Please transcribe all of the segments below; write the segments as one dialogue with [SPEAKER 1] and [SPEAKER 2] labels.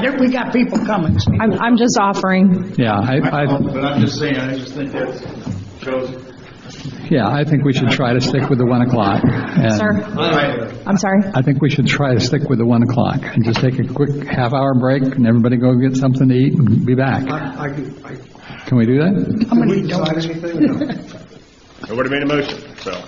[SPEAKER 1] There- We got people coming, so.
[SPEAKER 2] I'm, I'm just offering.
[SPEAKER 3] Yeah, I, I,
[SPEAKER 4] But I'm just saying, I just think that shows,
[SPEAKER 3] yeah, I think we should try to stick with the 1 o'clock. and
[SPEAKER 2] Sir,
[SPEAKER 4] Anyway,
[SPEAKER 2] I'm sorry.
[SPEAKER 3] I think we should try to stick with the 1 o'clock and just take a quick half-hour break and everybody go get something to eat and be back.
[SPEAKER 5] I, I could- I-
[SPEAKER 3] Can we do that?
[SPEAKER 5] did we decide anything? No.
[SPEAKER 6] Nobody made a motion, so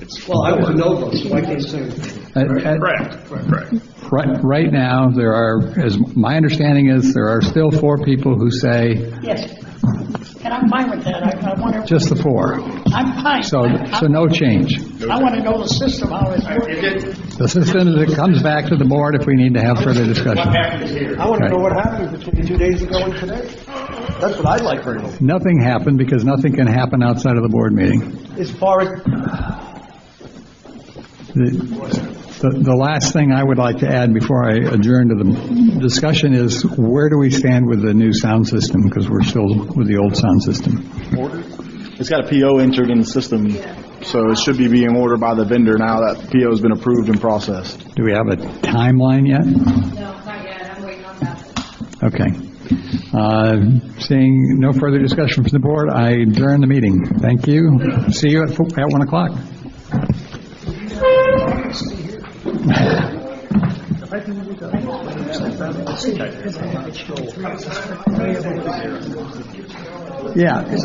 [SPEAKER 6] it's
[SPEAKER 5] Well, I was a no vote, so I can't say. anything.
[SPEAKER 3] At- at-
[SPEAKER 6] correct, correct.
[SPEAKER 3] Uh, Right, right now, there are, as my understanding is, there are still four people who say,
[SPEAKER 1] Yes. And I'm fine with that. I, I want to,
[SPEAKER 3] just the four.
[SPEAKER 1] I'm fine.
[SPEAKER 3] So,
[SPEAKER 1] I-
[SPEAKER 3] so no change.
[SPEAKER 1] I want to know the system, how it's
[SPEAKER 4] it
[SPEAKER 1] working.
[SPEAKER 4] did,
[SPEAKER 3] The system that comes back to the board if we need to have further
[SPEAKER 4] what
[SPEAKER 3] discussion.
[SPEAKER 4] happened here?
[SPEAKER 5] I want to know what happened between two days ago and today. That's what I'd like to know.
[SPEAKER 3] Nothing happened because nothing can happen outside of the board meeting.
[SPEAKER 5] As far as,
[SPEAKER 3] The, the last thing I would like to add before I adjourn to the discussion is, where do we stand with the new sound system? Because we're still with the old sound system.
[SPEAKER 7] It's got a PO entered in the system, so it should be being ordered by the vendor now that PO's been approved and processed.
[SPEAKER 3] Do we have a timeline yet?
[SPEAKER 8] No, not yet, I'm waiting on that.
[SPEAKER 3] Okay. Uh, Seeing no further discussion from the board, I adjourn the meeting. Thank you. See you at fo- at 1 o'clock. Yeah.